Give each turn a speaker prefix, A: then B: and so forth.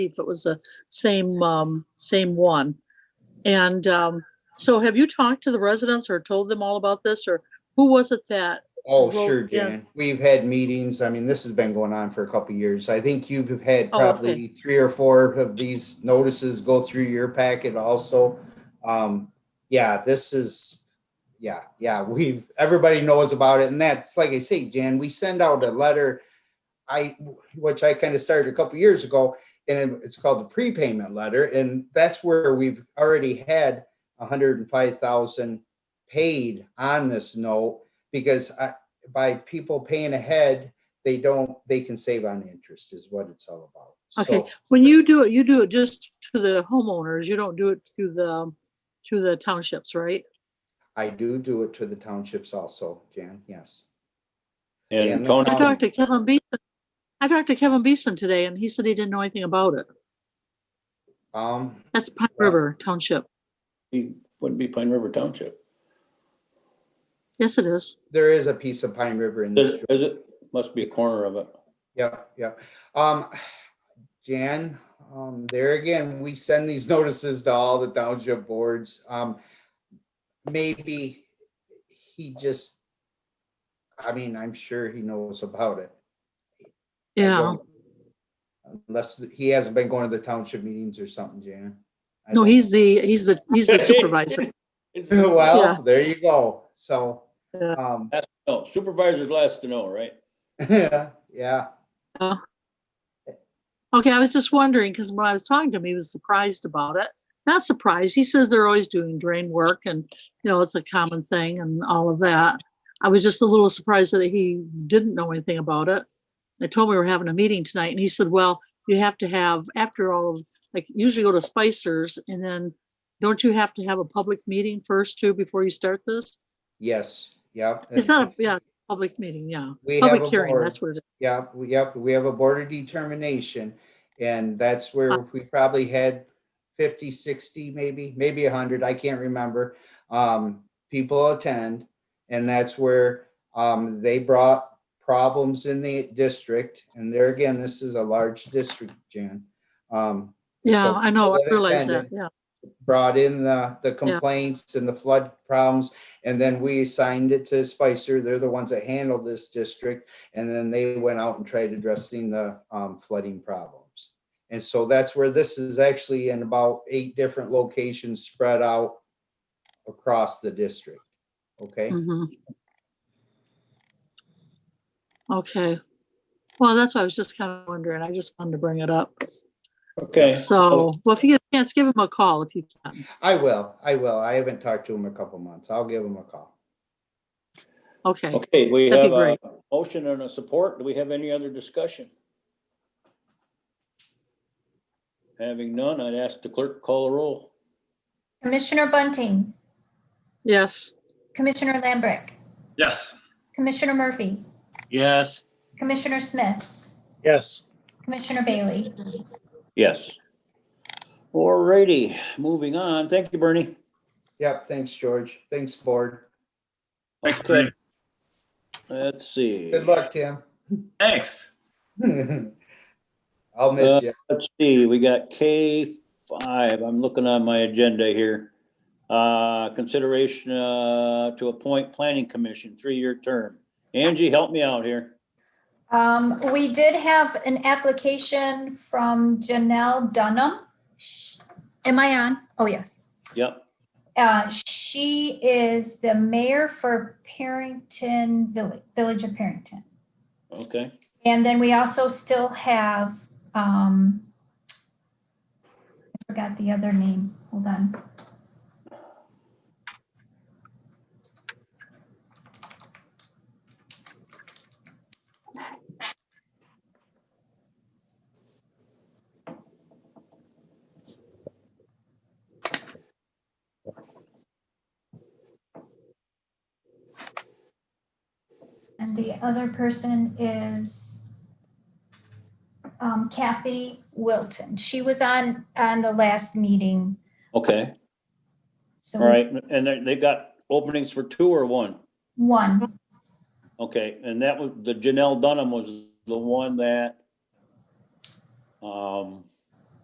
A: if it was the same, um, same one. And, um, so have you talked to the residents or told them all about this or who was it that?
B: Oh,
A: Well,
B: sure,
A: yeah.
B: Jan. We've had meetings. I mean, this has been going on for a couple of years. I think you've had
A: Oh, okay.
B: probably three or four of these notices go through your packet also. Um, yeah, this is, yeah, yeah, we've, everybody knows about it. And that's, like I say, Jan, we send out a letter. I, which I kind of started a couple of years ago, and it's called the prepayment letter. And that's where we've already had hundred and five thousand paid on this note because I, by people paying ahead, they don't, they can save on interest is what it's all about.
A: Okay.
B: So,
A: When you do it, you do it just to the homeowners. You don't do it through the, um, through the townships, right?
B: I do do it to the townships also, Jan, yes. Yeah,
C: And
B: no
C: Tony,
A: I
B: Um,
A: talked to Kevin Beeson. I talked to Kevin Beeson today and he said he didn't know anything about it.
B: Um,
A: That's Pine
B: Yeah.
A: River Township.
C: he wouldn't be Pine River Township.
A: Yes, it is.
B: there is a piece of Pine River in
C: Is
B: this.
C: it- is it, must be a corner of it.
B: Yeah, yeah. Um, Jan, um, there again, we send these notices to all the township boards. Um, maybe he just, I mean, I'm sure he knows about it. I
A: Yeah.
B: don't- Unless he hasn't been going to the township meetings or something, Jan. I
A: No,
B: don't-
A: he's the, he's the, he's the supervisor. yeah.
B: Well, there you go. So,
A: Yeah.
B: um,
C: No, Oh, supervisor's last to know, right?
B: yeah.
A: Okay, I was just wondering, because when I was talking to him, he was surprised about it. Not surprised. He says they're always doing drain work and, you know, it's a common thing and all of that. I was just a little surprised that he didn't know anything about it. I told him we were having a meeting tonight and he said, well, you have to have, after all, like usually go to Spicer's and then don't you have to have a public meeting first too before you start this?
B: Yes, yeah.
A: It's not, a yeah, public meeting, yeah.
B: We have
A: Public
B: a
A: hearing,
B: board.
A: that's what it is.
B: Yeah, we, yep, we have a board of determination, and that's where we probably had 50, 60, maybe, maybe hundred, I can't remember. Um, people attend, and that's where, um, they brought problems in the district, and there again, this is a large district, Jan. Um,
A: Yeah,
B: So
A: I know, I
B: people that
A: realize that,
B: attended-
A: yeah.
B: brought in the, the complaints and the flood problems. And then we assigned it to Spicer. They're the ones that handle this district. And then they went out and tried addressing the um, flooding problems. And so that's where this is actually in about eight different locations spread out across the district. Okay,
A: Mhm. Okay. Well, that's what I was just kind of wondering. I just wanted to bring it up.
C: Okay.
A: So, well, if you get a chance, give him a call if you can.
B: I will, I will. I haven't talked to him in a couple months. I'll give him a call.
A: Okay.
C: Okay, we
A: That'd
C: have
A: be
C: a motion and a support. Do we have any other discussion? Having none, I'd ask the clerk to call a roll.
D: Commissioner Bunting,
A: Yes.
D: Commissioner Lambrick,
E: Yes.
D: Commissioner Murphy,
E: Yes.
D: Commissioner Smith,
E: Yes.
D: Commissioner Bailey.
C: Yes. Alrighty, moving on. Thank you, Bernie.
B: Yep, thanks, George. Thanks, board.
E: Thanks, Craig.
C: Let's see.
B: Good luck, Tim.
E: Thanks.
B: I'll miss you.
C: Let's see, we got K five. I'm looking on my agenda here. Uh, consideration, uh, to appoint planning commission, three-year term. Angie, help me out here.
D: Um, we did have an application from Janelle Dunham. Sh- Am I on? Oh, yes.
C: Yep,
D: Uh, she is the mayor for Parrington Village, Village of Parrington.
C: okay.
D: And then we also still have, um, I forgot the other name. Hold on. And the other person is um, Kathy Wilton. She was on, on the last meeting.
C: Okay,
D: So
C: all right. And they, they got openings for two or one?
D: One,
C: Okay, and that was, the Janelle Dunham was the one that, um,